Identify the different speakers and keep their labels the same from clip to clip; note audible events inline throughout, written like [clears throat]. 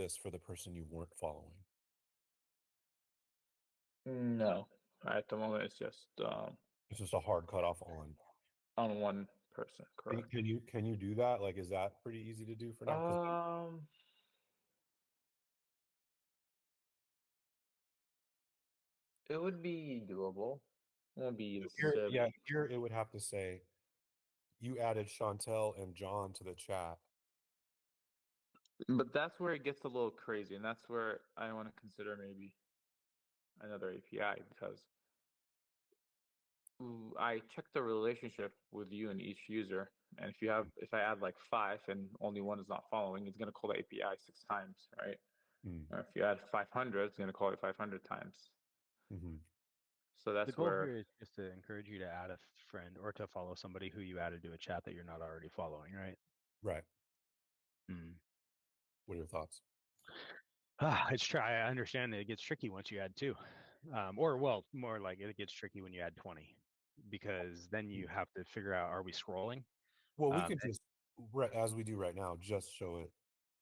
Speaker 1: process for the person you weren't following?
Speaker 2: No, at the moment it's just um,
Speaker 1: It's just a hard cutoff on.
Speaker 2: on one person,
Speaker 1: Can you-
Speaker 2: correct?
Speaker 1: Can you can you do that? Like, is that pretty easy to do for now? 'Cause
Speaker 2: Um, it would be doable. It won't be
Speaker 1: here,
Speaker 2: necessarily.
Speaker 1: yeah, here it would have to say, you added Chantel and John to the chat.
Speaker 2: But that's where it gets a little crazy, and that's where I want to consider maybe another API because w- I check the relationship with you and each user, and if you have, if I add like five and only one is not following, it's going to call the API six times, right?
Speaker 1: Hmm.
Speaker 2: Or if you add five hundred, it's going to call it five hundred times.
Speaker 1: Mhm.
Speaker 2: So
Speaker 3: The
Speaker 2: that's
Speaker 3: goal
Speaker 2: where
Speaker 3: here is just to encourage you to add a friend or to follow somebody who you added to a chat that you're not already following, right?
Speaker 1: Right.
Speaker 3: Mm.
Speaker 1: What are your thoughts?
Speaker 3: Ah, it's try. [sighs] I understand that it gets tricky once you add two, um, or well, more like it gets tricky when you add twenty, because then you have to figure out are we scrolling?
Speaker 1: Well, we
Speaker 3: Um,
Speaker 1: could just right as we do right now, just show it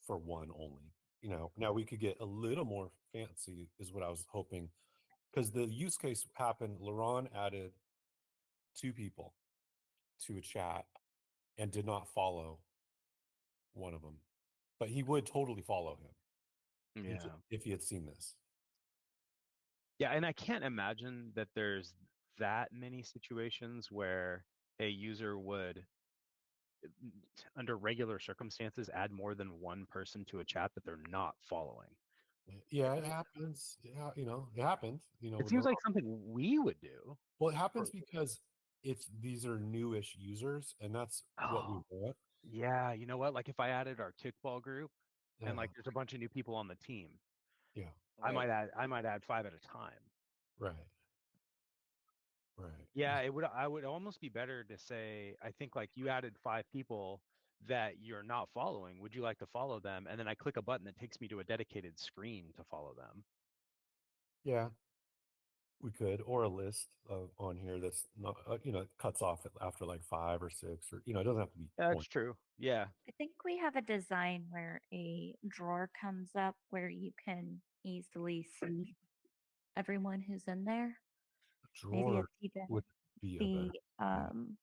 Speaker 1: for one only. You know, now we could get a little more fancy, is what I was hoping, because the use case happened. Laron added two people to a chat and did not follow one of them, but he would totally follow him
Speaker 3: Yeah.
Speaker 1: if- if he had seen this.
Speaker 3: Yeah, and I can't imagine that there's that many situations where a user would, uh, n- t- under regular circumstances, add more than one person to a chat that they're not following.
Speaker 1: Yeah, it happens. Yeah, you know, it happened. You know,
Speaker 3: It
Speaker 1: with
Speaker 3: seems
Speaker 1: Laron.
Speaker 3: like something we would do.
Speaker 1: Well, it happens because it's these are newish users, and that's what we
Speaker 3: Oh,
Speaker 1: want.
Speaker 3: Yeah, you know what? Like if I added our kickball group
Speaker 1: Yeah.
Speaker 3: and like there's a bunch of new people on the team, I
Speaker 2: Right.
Speaker 3: might add I might add five at a time.
Speaker 1: Oh, Right. Right.
Speaker 3: Yeah, it would I would almost be better to say, I think like you added five people that you're not following. Would you like to follow them? And then I click a button that takes me to a dedicated screen to follow them.
Speaker 1: Yeah. We could, or a list of, on here that's not, uh, you know, cuts off at- after like five or six, or you know, it doesn't have to be.
Speaker 3: That's
Speaker 1: one.
Speaker 3: true. Yeah.
Speaker 4: I think we have a design where a drawer comes up where you can
Speaker 1: [clears throat]
Speaker 4: easily see everyone who's in there. Maybe
Speaker 1: Drawer
Speaker 4: it's even
Speaker 1: would be a better.
Speaker 4: the um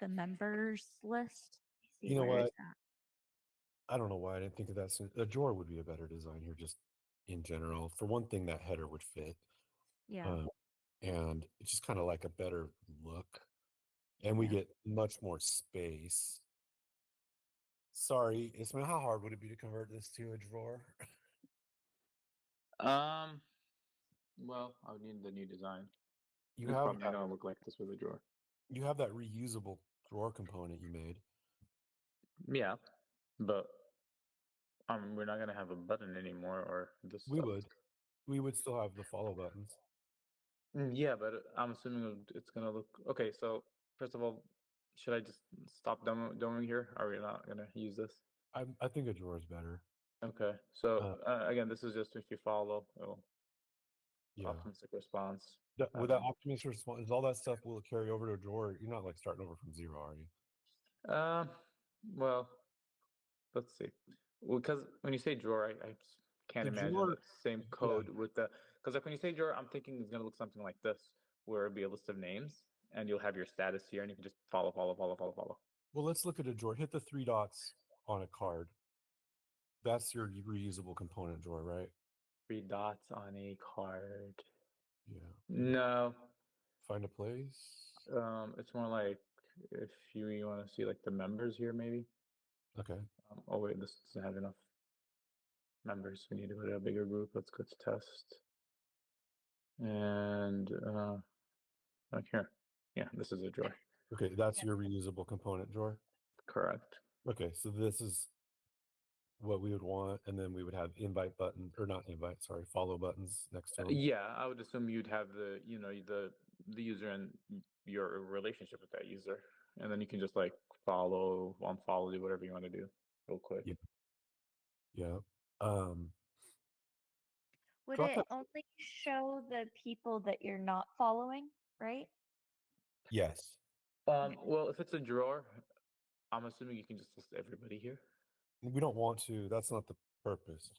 Speaker 4: the members list. Let me see,
Speaker 1: You know
Speaker 4: where is
Speaker 1: what?
Speaker 4: that?
Speaker 1: I don't know why I didn't think of that. Soon. A drawer would be a better design here, just in general. For one thing, that header would fit.
Speaker 4: Yeah.
Speaker 1: um, and it's just kind of like a better look and we
Speaker 4: Yeah.
Speaker 1: get much more space sorry ismail how hard would it be to convert this to a drawer [laughs]
Speaker 2: Um, well, I would need the new design.
Speaker 1: you
Speaker 2: It's
Speaker 1: have
Speaker 2: probably not
Speaker 1: that,
Speaker 2: gonna look like this with a drawer.
Speaker 1: you have that reusable drawer component you made
Speaker 2: Yeah, but um, we're not gonna have a button anymore, or this.
Speaker 1: we
Speaker 2: stuff.
Speaker 1: would we would still have the follow buttons
Speaker 2: Mm, Yeah, but I'm assuming it- it's gonna look okay. So first of all, should I just stop demo demoing here? Are we not gonna use this?
Speaker 1: I, I think a drawer is better
Speaker 2: Okay. So uh, again, this is just if you follow it'll
Speaker 1: yeah
Speaker 2: optimistic response.
Speaker 1: That- with that
Speaker 2: um,
Speaker 1: optimistic response all that stuff will carry over to a drawer you're not like starting over from zero are you
Speaker 2: Um, well, let's see. Because when you say drawer, I, I s- can't
Speaker 1: The
Speaker 2: imagine
Speaker 1: drawer-
Speaker 2: the same code with the. Because like when you say drawer, I'm thinking it's gonna look something like this, where it'd be a list of names, and you'll have your status here, and you can just follow, follow, follow, follow, follow.
Speaker 1: Well, let's look at a drawer. Hit the three dots on a card. That's your reusable component drawer, right?
Speaker 2: Three dots on a card.
Speaker 1: Yeah.
Speaker 2: No,
Speaker 1: Find a place.
Speaker 2: um, it's more like if you, you want to see like the members here, maybe.
Speaker 1: Okay.
Speaker 2: Um, oh wait, this doesn't have enough members. We need to go to a bigger group. Let's go to test. And uh, like here, yeah, this is a drawer.
Speaker 1: Okay, that's
Speaker 4: Yeah.
Speaker 1: your reusable component drawer.
Speaker 2: Correct.
Speaker 1: Okay, so this is what we would want, and then we would have invite button or not invite, sorry, follow buttons next to
Speaker 2: Uh,
Speaker 1: them.
Speaker 2: Yeah, I would assume you'd have the you know the the user and y- your relationship with that user, and then you can just like follow, unfollow, do whatever you want to do, real quick.
Speaker 1: Yeah. Yeah. Um,
Speaker 4: Would
Speaker 1: drop
Speaker 4: it only show the people that you're not following, right?
Speaker 1: yes.
Speaker 2: Um, well, if it's a drawer, I'm assuming you can just list everybody here.
Speaker 1: We don't want to. That's not the purpose.